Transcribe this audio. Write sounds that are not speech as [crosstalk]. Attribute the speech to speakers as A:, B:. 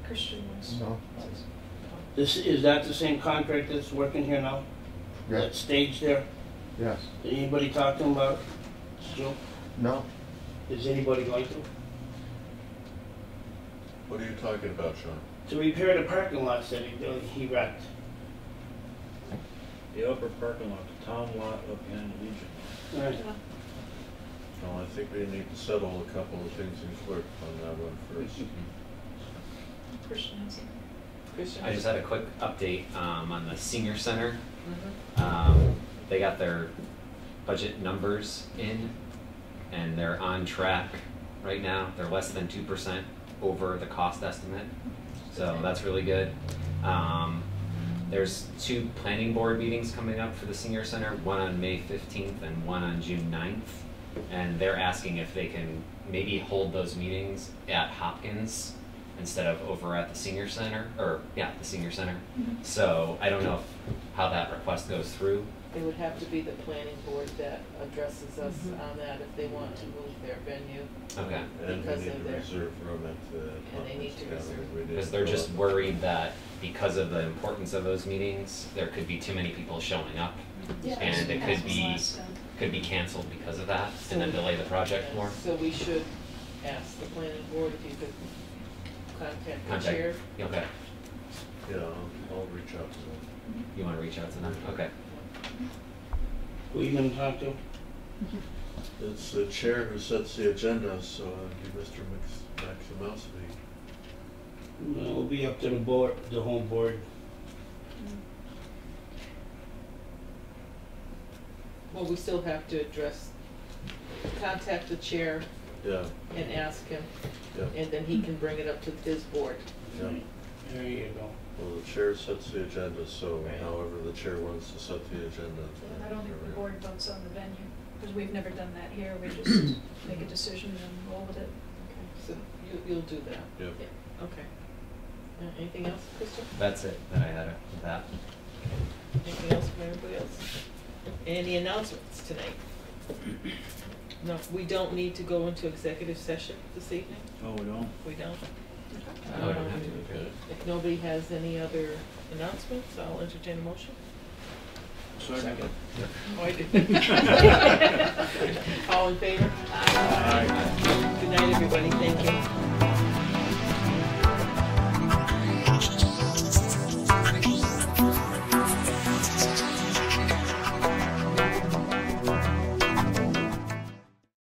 A: Christian was.
B: No.
C: This, is that the same contract that's working here now? That
B: Yes,
C: stage there?
B: yes.
C: Did anybody talk to him about Joe?
B: No,
C: Is anybody going to?
D: What are you talking about, Sean?
C: To repair the parking lots that he, he wrecked.
E: The upper parking lot, the town lot up behind the Legion.
C: Right.
D: No, I think we need to settle a couple of things in court on that one first.
A: Christian housing.
F: I just had a quick update um, on the senior center. Um, they got their budget numbers in, and they're on track right now. They're less than two percent over the cost estimate, so that's really good. Um, there's two planning board meetings coming up for the senior center, one on May 15th and one on June 9th. And they're asking if they can maybe hold those meetings at Hopkins instead of over at the senior center, or, yeah, the senior center.
A: Mhm.
F: So I don't know if- how that request goes through.
G: It would have to be the planning board that addresses us
A: Mhm.
G: on that if they want to move their venue.
F: Okay.
D: And we
G: [laughs] Because
D: need
G: of
D: to
G: their-
D: reserve room at the
G: And they need
D: conference
G: to
D: gathering.
G: reserve.
D: We didn't
F: Because they're just
D: fill it.
F: worried that because of the importance of those meetings, there could be too many people showing up. And it could be, could be canceled because of that, and then delay the project more.
G: So we should ask the planning board if you could contact the
F: Contact-
G: chair.
F: Okay.
D: Yeah, I'll, I'll reach out to them.
F: You want to reach out to them? Okay.
C: Who you gonna talk to?
D: It's the chair who sets the agenda, so it'd be Mr. Max, Maximowski.
C: No, It'll be up to the board, the home board.
G: Well, we still have to address, contact the chair
D: Yeah,
G: and ask him,
D: yeah,
G: and then he can bring it up to his board.
D: yeah.
C: There you go.
D: Well, the chair sets the agenda, so
G: Right.
D: however the chair wants to set the agenda.
A: I don't think the board votes on the venue, because we've never done that here, we
F: [clears throat]
A: just make a decision and roll with it.
G: So you, you'll do that.
D: Yep.
G: Yeah, Okay. Uh, Anything else, Krista?
F: That's it that I had with that.
G: Anything else from anybody else? Any announcements tonight? No, we don't need to go into executive session this evening?
E: Oh, we don't?
G: We don't? Um,
F: No, I don't have to.
D: Okay.
G: If nobody has any other announcements, I'll entertain a motion.
E: Second.
G: Oh, I [laughs] did. All in favor? Good night, everybody, thank you.